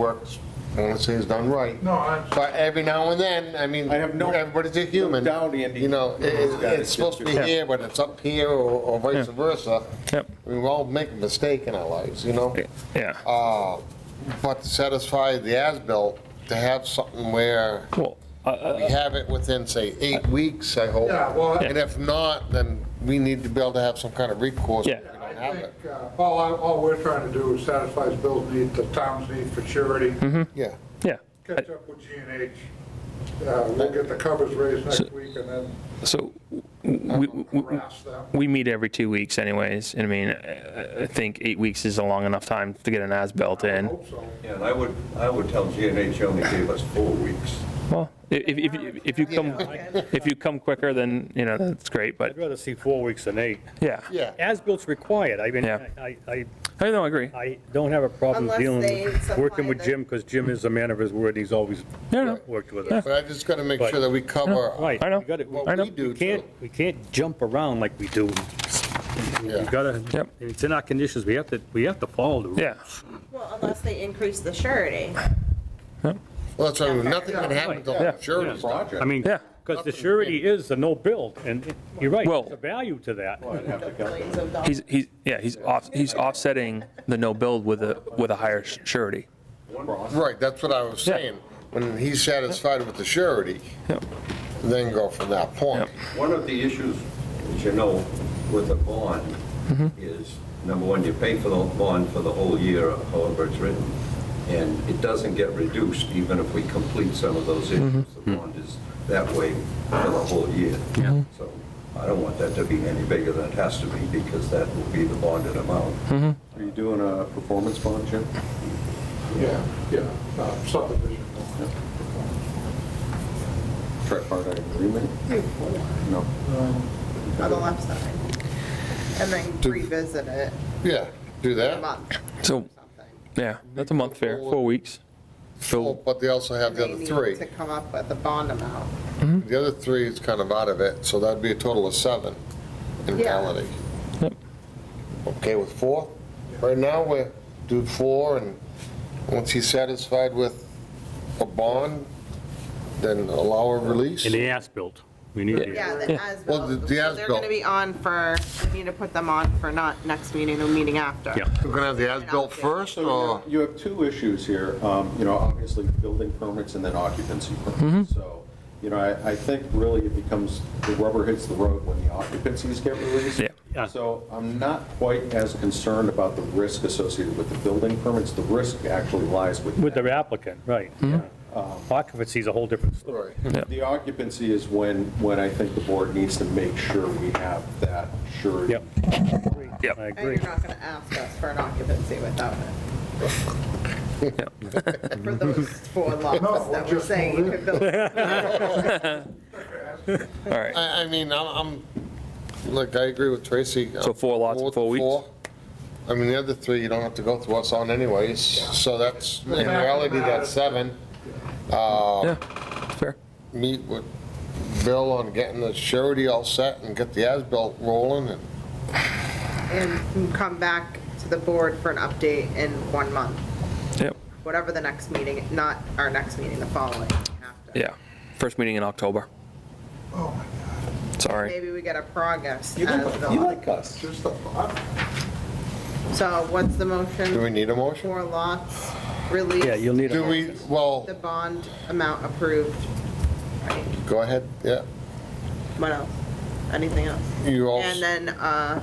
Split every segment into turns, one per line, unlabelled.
works, I want to say is done right.
No, I'm-
But every now and then, I mean,
I have no-
everybody's a human.
no doubt, Andy.
You know, it-
He's got
it-
it.
it's supposed to be
Yeah.
here, but it's up here or or vice
Yeah.
versa.
Yep.
We all make a mistake in our lives, you know?
Yeah.
Uh, But to satisfy the as-built, to have something where
Well, I- I-
we
Uh,
have it within, say, eight weeks, I hope.
Yeah, well, I
And if not, then we need to be able to have some kind of recourse. if
Yeah.
we
I
don't have
think,
it.
uh, all, I- all we're trying to do is satisfy Bill's need, the town's need for surety,
Yeah.
yeah.
catch up with G and H. Uh, We'll get the covers raised next week and then
So we, we- we-
harass them.
we meet every two weeks anyways. And I mean, I I think eight weeks is a long enough time to get an as-built
I
in.
hope so.
And I would, I would tell GNH only gave us four weeks.
Well, i- if, if, you- if you come, if you come quicker, then, you know, that's great, but
I'd rather see four weeks than eight.
yeah.
Yeah.
As-bilt's required, I mean,
Yeah.
I, I,
I know, I agree.
I don't have a problem
Unless
dealing,
they
with- working with
supply the-
Jim, because Jim is a man of his word, he's always
Yeah, I know.
worked with us.
But I just got to make
But-
sure that we cover.
Right.
I know.
we gotta- we-
What
I know.
we do
We can't,
too.
we can't jump around like we do. We
Yeah.
gotta,
Yep.
it's in our conditions, we have to, we have to follow the rules.
Yeah.
Well, unless they increase the surety.
Well, so nothing can happen
right.
until
Yeah.
the surity's done.
I mean,
Yeah.
because the surety is the no-build, and you're right,
Well-
there's a value to that.
Millions of dollars.
He's, he's, yeah, he's off, he's offsetting the no build with a, with a higher surety.
Right, that's what I was
Yeah.
saying. When he's satisfied with the surety,
Yep.
then go from that point.
One of the issues, as you know, with a bond is, number one, you pay for the bond for the whole year, however it's written, and it doesn't get reduced even if we complete some of those issues. The bond is that way for the whole year. So I don't want that to be any bigger than it has to be because that will be the bonded amount.
Are you doing a performance bond, Jim?
Yeah, yeah, uh, subdivision.
Tripartite agreement? No.
On the left side. And then revisit it
Yeah, do
in a
that.
month
So,
or something.
yeah, that's a month fair, four weeks.
Oh,
So,
But they also have
And
the
they
other
need
three.
To come up with a bond amount.
The other three is kind of out of it, so that'd be a total of seven in
Yeah.
reality.
Yep.
Okay with four? Right now, we do four, and once he's satisfied with a bond, then allow a release.
And the as-built, we need the
Yeah, the as
Well, the- the
They're going
as-built.
to be on for, we need to put them on for not next meeting, the meeting after.
Yeah.
We're gonna have the as-built first,
So
or?
you have two issues here, um, you know, obviously building permits and then occupancy permits. So, you know, I, I think really it becomes, the rubber hits the road when the occupancies get released.
Yeah.
Yeah.
So I'm not quite as concerned about the risk associated with the building permits. The risk actually lies with.
With the applicant, right.
Mm-hmm.
yeah. Um, Occupancy is a whole different story.
Right.
The occupancy is when, when I think the board needs to make sure we have that surety.
Yep.
Yep.
I
And
agree.
you're not going to ask us for an occupancy without it. For those four lots that we're
just
saying you could build.
all right.
I, I mean, I'm, I'm, look, I agree with Tracy.
So four lots in
Four-
four weeks?
four. I mean, the other three, you don't have to go through what's on anyways, so that's, in reality, that's seven.
Yeah, fair.
Meet with Bill on getting the surety all set and get the as-built rolling and,
And come back to the board for an update in one month,
Yep.
whatever the next meeting, not our next meeting, the following after.
Yeah. First meeting in October.
Oh, my
Sorry.
Maybe we get a progress.
You
as
like-
the-
you like us.
Just the thought.
So what's the
do we
motion?
need a motion?
Four lots release.
Yeah, you'll need
Do
a,
we, well,
The bond amount approved. Right.
go ahead, yeah,
What else? Anything else?
you all,
And then, uh,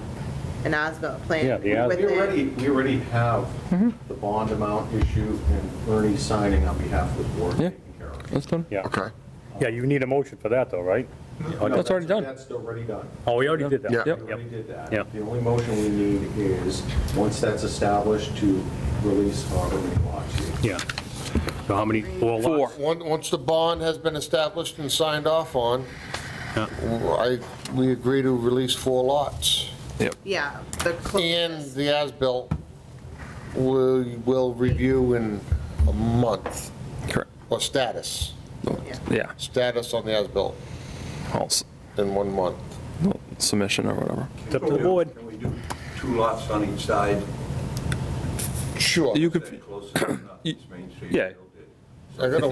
an ASBIL
Yeah,
plan.
the as-
with
We
it.
already, we already have the bond amount issue and Ernie signing on behalf of the board
Yeah.
taken care of.
That's done.
yeah.
okay,
Yeah, you need a motion for that, though, right?
Oh, No,
that's already done.
That's already done.
Oh, we already did that.
Yeah.
Yep.
We already did that.
Yeah.
The only motion we need is, once that's established, to release however many lots you
Yeah. So how many, four lots?
Four.
Once, once the bond has been established and signed off on,
Yeah.
I, we agree to release four lots.
Yeah, the
And
closest.
the as-built will, will review in a month,
Correct.
or status,
Yeah.
Yeah.
status on the as-built
All s-
in one month.
well, Submission or whatever.
It's up to the board.
Oh, Can we do two lots on each side?
Sure.
You
Is that
could,
close enough? East Main Street
Yeah.
built it.
I gotta